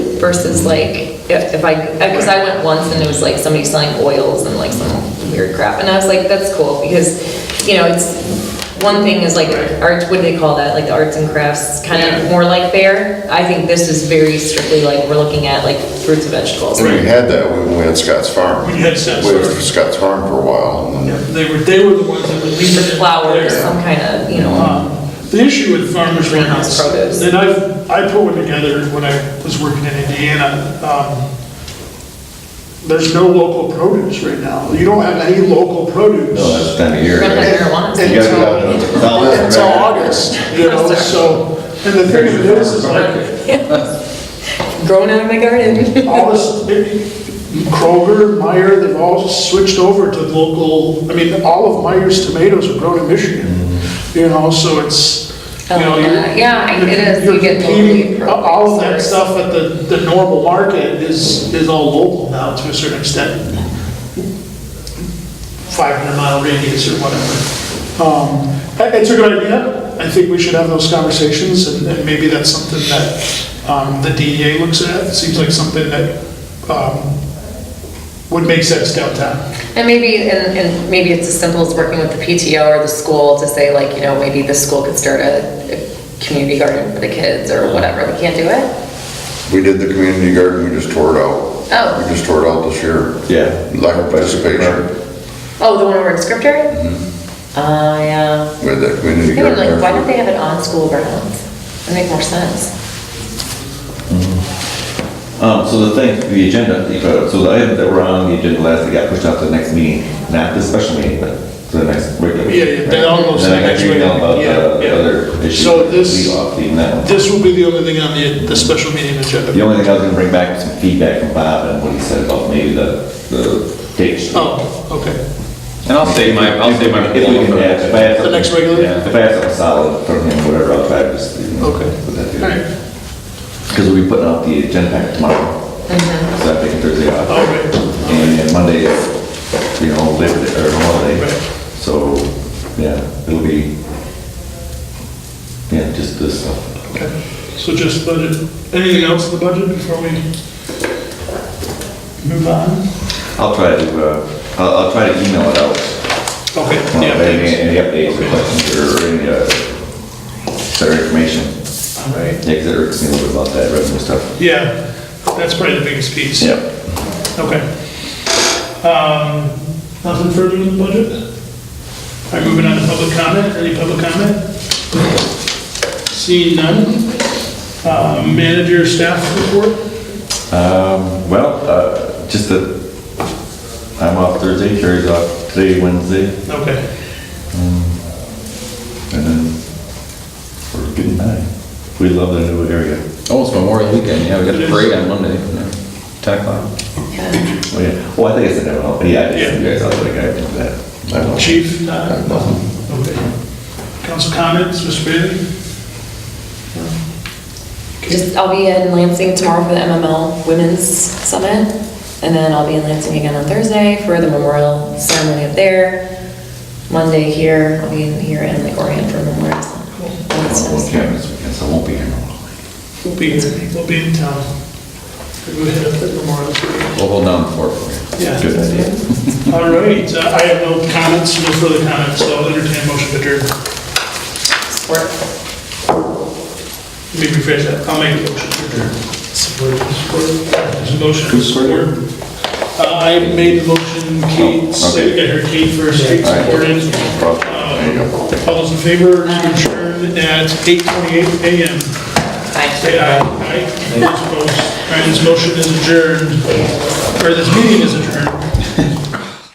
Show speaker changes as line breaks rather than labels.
versus like, if if I, because I went once and it was like somebody selling oils and like some weird crap, and I was like, that's cool, because, you know, it's, one thing is like art, what do they call that, like the arts and crafts, kind of more like fair. I think this is very strictly like, we're looking at like fruits and vegetables.
We had that when we had Scott's Farm.
We had Scott's
We were
Farm.
Scott's Farm for a while, and
Yeah,
then
They were, they were the ones that were leaving
The
it there.
flowers, some kind of, you know,
Um, The issue with farmers
Greenhouse
markets,
produce.
and I've, I put one together when I was working in Indiana, um, there's no local produce right now. You don't have any local produce.
No, that's the time of year.
We're gonna
right?
have marijuana.
You gotta go out
Until-
and- it's all-
Until August, you know, so, and the thing of it is, is like,
grown out of my garden.
all this, Kroger, Meyer, they've all switched over to local, I mean, all of Meyer's tomatoes are grown in Michigan, you know, so it's, you know,
Uh,
you're.
yeah, I get it,
you're
you get
competing-
locally
All of that
produced.
stuff at the, the normal market is, is all local now to a certain extent. 500 mile radius or whatever. Um, it- It's a good idea. I think we should have those conversations, and and maybe that's something that um, the DEA looks at. It seems like something that um, would make sense downtown.
And maybe, and, and maybe it's as simple as working with the PTO or the school to say like, you know, maybe the school could start a, a community garden for the kids or whatever, they can't do it?
we did the community garden, we just tore it out.
Oh.
We just tore it out this year.
Yeah.
Lack of participation
Oh, the one over in Scripter? Uh, yeah.
with that community
Yeah,
garden.
like, why don't
there.
they have it on school grounds? That'd make more sense.
Um, so the thing, the agenda, that you put up, so the item that were on the agenda last, that got pushed out to the next meeting, not this special meeting, but to the next regular.
Yeah,
meeting,
yeah, they
right?
all go to the
Then I got
next
your email
meeting,
about
yeah, yeah.
the other issue.
So this-
We off leaving that one.
This will be the only thing on the, the special meeting
The
agenda.
only thing I was gonna bring back was some feedback from Bob and what he said about maybe the, the dates.
Oh, okay.
And I'll save my, I'll save my.
If we can, yeah, if I have
The
something-
next regular?
yeah, If I have something solid from him, whatever, I'll try to just, you know,
Okay.
put that
All right.
together. Because we'll be putting out the agenda pack tomorrow. So I think Thursday off.
All right.
And then Monday is, you know, Labor Day, or holiday.
Right.
So, yeah, it'll be, yeah, just this stuff.
Okay, so just budget, anything else in the budget before we move on?
I'll try to, uh, I'll, I'll try to email it out.
Okay,
Well,
yeah,
Any,
thanks.
any updates or questions or any, uh, better information?
All right.
Yeah, 'cause it irks me a little bit about that revenue stuff.
Yeah, that's probably the biggest piece.
Yep.
Okay. Um, Nothing further in the budget? All right, moving on to public comment, any public comment? Seeing none. Uh, Manager staff report?
Um, well, uh, just that I'm off Thursday, Carrie's off today, Wednesday,
Okay,
and then we're getting by. We love the new area.
Oh, it's Memorial Weekend, yeah, we got a parade on Monday, yeah, 10 o'clock.
Yeah.
Oh, yeah. Well, I think it's in there, well, yeah, I
Yeah.
did see you guys, I was like, I did that. I don't know.
chief?
I
uh,
don't know.
Okay. Council comments, Mr. Bailey?
Just, I'll be in Lansing tomorrow for the MML Women's Summit, and then I'll be in Lansing again on Thursday for the memorial ceremony up there. Monday here, I'll be in here in the Orient for Memorial.
Well,
Summit.
Cameron's weekend, so I won't be here.
We'll be, we'll be in town. We'll head up to Memorial Parade.
We'll hold down the fort for you.
Yeah.
Good idea.
All right, uh, I have no comments, no further comments, so I'll entertain a motion to adjourn. Let me rephrase that, I'll make a motion to adjourn. Support. There's a motion for Oh, support. Uh, I made the motion, Kate, second, I heard Kate first, Kate supported. Uh, All those in favor, to adjourn at 8:28 a.m. Say aye. Aye. Those opposed. All right, this motion is adjourned, or this meeting is adjourned.